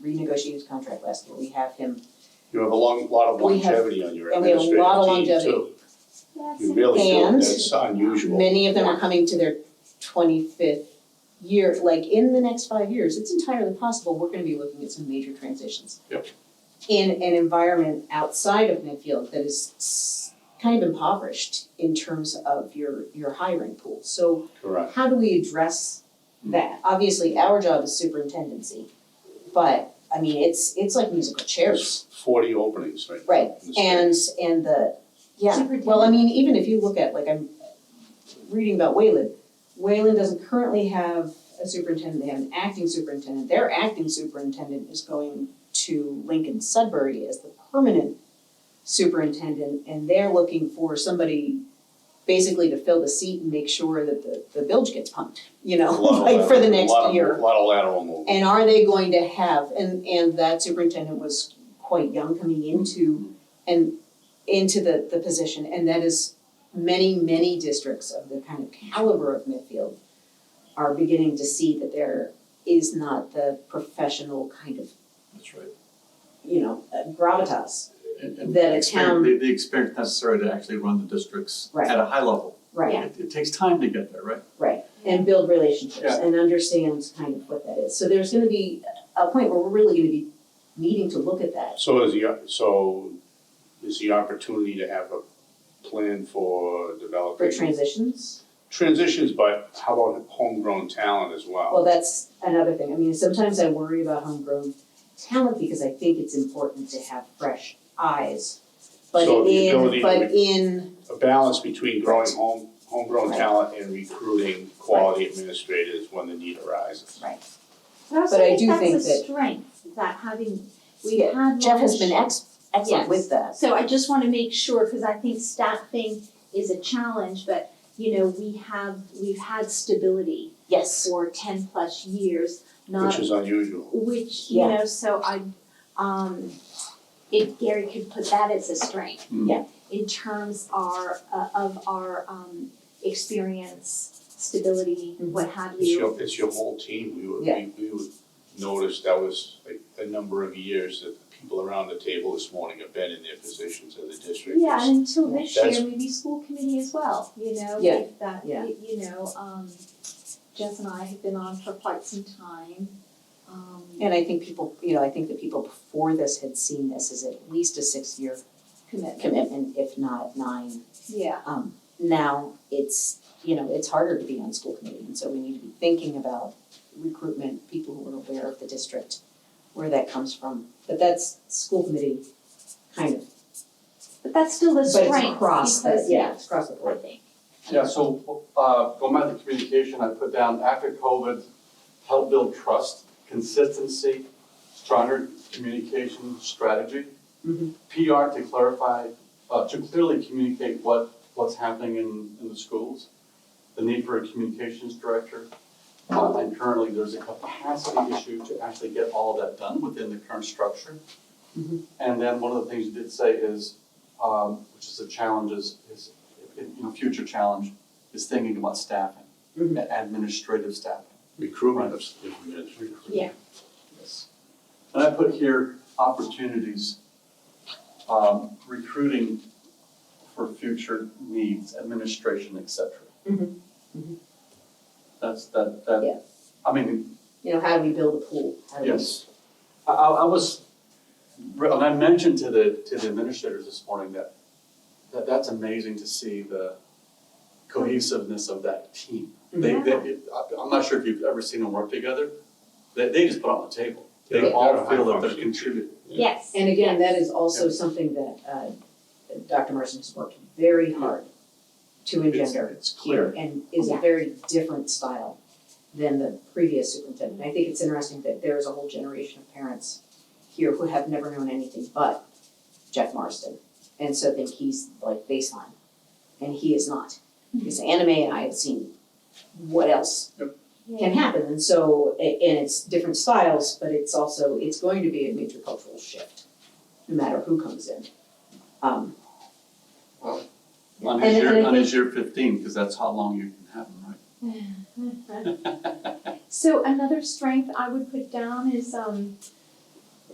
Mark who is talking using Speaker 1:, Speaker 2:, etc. Speaker 1: renegotiated his contract last year, we have him
Speaker 2: You have a long, lot of
Speaker 1: We have-
Speaker 2: longevity on your
Speaker 1: and we have a lot of
Speaker 2: administrative team too. You really do,
Speaker 1: And-
Speaker 2: that's unusual.
Speaker 1: Many of them are coming to their twenty-fifth year, like in the next five years, it's entirely possible, we're gonna be looking at some major transitions.
Speaker 2: Yep.
Speaker 1: In an environment outside of Medfield that is s- kind of impoverished in terms of your, your hiring pool. So
Speaker 2: Correct.
Speaker 1: how do we address that? Obviously, our job is superintendency, but, I mean, it's, it's like musical chairs.
Speaker 2: There's forty openings right now.
Speaker 1: Right,
Speaker 2: in the state.
Speaker 1: and and the, yeah, well, I mean, even if you look at, like, I'm reading about Wayland. Wayland doesn't currently have a superintendent, they have an acting superintendent, their acting superintendent is going to Lincoln Sudbury as the permanent superintendent, and they're looking for somebody basically to fill the seat and make sure that the the bilge gets pumped, you
Speaker 2: A
Speaker 1: know,
Speaker 2: lot of
Speaker 1: like for the
Speaker 2: lateral-
Speaker 1: next
Speaker 2: a lot of-
Speaker 1: year.
Speaker 2: A lot of lateral movement.
Speaker 1: And are they going to have, and, and that superintendent was quite young coming into, and into the, the position, and that is many, many districts of the kind of caliber of Midfield are beginning to see that there is not the professional kind of,
Speaker 3: That's right.
Speaker 1: you know, uh, gravitas,
Speaker 3: And and
Speaker 1: That a
Speaker 3: the
Speaker 1: town-
Speaker 3: experience, the the experience necessary to actually run the districts
Speaker 1: Right.
Speaker 3: at a high level.
Speaker 1: right?
Speaker 3: It it takes time to get there, right?
Speaker 1: and build relationships
Speaker 3: Yeah.
Speaker 1: and understand kind of what that is. So there's gonna be a point where we're really gonna be needing to look at that.
Speaker 2: So is the, so is the opportunity to have a plan for
Speaker 1: For
Speaker 2: developing
Speaker 1: transitions,
Speaker 2: transitions, but how about homegrown talent as well?
Speaker 1: Well, that's another thing. I mean, sometimes I worry about homegrown talent because I think it's important to have fresh eyes. But
Speaker 2: So the ability
Speaker 1: in,
Speaker 2: to
Speaker 1: but in,
Speaker 2: A balance between growing home, homegrown
Speaker 1: Right.
Speaker 2: talent and recruiting quality administrators when the need arises.
Speaker 1: But I do think
Speaker 4: that's
Speaker 1: that-
Speaker 4: a strength, that having, we
Speaker 1: Yeah,
Speaker 4: had one.
Speaker 1: Jeff has been ex- excellent with that.
Speaker 4: So I just wanna make sure, cause I think staffing is a challenge, but you know, we have, we've had stability
Speaker 1: Yes.
Speaker 4: for ten plus years,
Speaker 2: Which
Speaker 4: not,
Speaker 2: is unusual.
Speaker 4: which, you
Speaker 1: Yeah.
Speaker 4: know, so I, um, if Gary could put that as a strength.
Speaker 3: Mm.
Speaker 1: Yeah.
Speaker 4: In terms our, uh, of our, um, experience, stability,
Speaker 1: Mhm.
Speaker 4: what have
Speaker 2: It's
Speaker 4: you.
Speaker 2: your, it's your whole team. We would,
Speaker 1: Yeah.
Speaker 2: we, we would notice that was like a number of years that the people around the table this morning have been in their positions in the district.
Speaker 4: Yeah, and until
Speaker 1: Yeah.
Speaker 4: this
Speaker 2: That's-
Speaker 4: year, maybe school committee as well, you know,
Speaker 1: Yeah,
Speaker 4: if that,
Speaker 1: yeah.
Speaker 4: y- you know, um, Jess and I have been on for quite some time. Um,
Speaker 1: And I think people, you know, I think the people before this had seen this as at least a six-year
Speaker 4: commitment,
Speaker 1: commitment, if not nine.
Speaker 4: yeah,
Speaker 1: Um, now it's, you know, it's harder to be on school committee, and so we need to be thinking about recruitment, people who are aware of the district, where that comes from. But that's school committee kind of,
Speaker 4: but that's still a
Speaker 1: but
Speaker 4: strength,
Speaker 1: it's across the,
Speaker 4: because,
Speaker 1: yeah, it's across the board.
Speaker 4: I think,
Speaker 5: Yeah, so, uh, going back to communication, I put down after COVID, help build trust, consistency, stronger communication strategy.
Speaker 1: Mhm.
Speaker 5: PR to clarify, uh, to clearly communicate what, what's happening in, in the schools. The need for a communications director. Uh, and currently, there's a capacity issue to actually get all that done within the current structure.
Speaker 1: Mhm.
Speaker 5: And then one of the things you did say is, um, which is a challenge is, is, you know, future challenge is thinking about staffing,
Speaker 1: Mhm.
Speaker 5: a- administrative staffing.
Speaker 2: Recruitment of, administrators.
Speaker 4: Yeah.
Speaker 5: Yes. And I put here opportunities, um, recruiting for future needs, administration, et cetera.
Speaker 1: Mhm. Mhm.
Speaker 5: That's, that, that.
Speaker 1: Yeah.
Speaker 5: I mean,
Speaker 1: You know, how do we build a pool? How do we-
Speaker 5: Yes. I, I, I was, and I mentioned to the, to the administrators this morning that, that that's amazing to see the cohesiveness of that team. They, they, I- I'm not sure if you've ever seen them work together, they, they just put on the table.
Speaker 2: Yeah.
Speaker 5: They all feel that they're
Speaker 2: Functioning.
Speaker 5: contributing.
Speaker 4: yes.
Speaker 1: And again,
Speaker 4: yes.
Speaker 1: that is also something that, uh, Dr. Marson has worked very hard to
Speaker 2: It's,
Speaker 1: engender.
Speaker 2: it's clear.
Speaker 1: and is a
Speaker 4: Yeah.
Speaker 1: very different style than the previous superintendent. I think it's interesting that there is a whole generation of parents here who have never known anything but Jeff Marston. And so think he's like baseline, and he is not.
Speaker 4: Mm-hmm.
Speaker 1: Because anime and I have seen what else can happen, and so, a- and it's different styles, but it's also, it's going to be a major cultural shift, no matter who comes in. Um,
Speaker 3: One
Speaker 1: And-
Speaker 3: is
Speaker 1: and I
Speaker 3: your, one
Speaker 1: think-
Speaker 3: is your fifteen, because that's how long you can have them, right?
Speaker 4: So another strength I would put down is um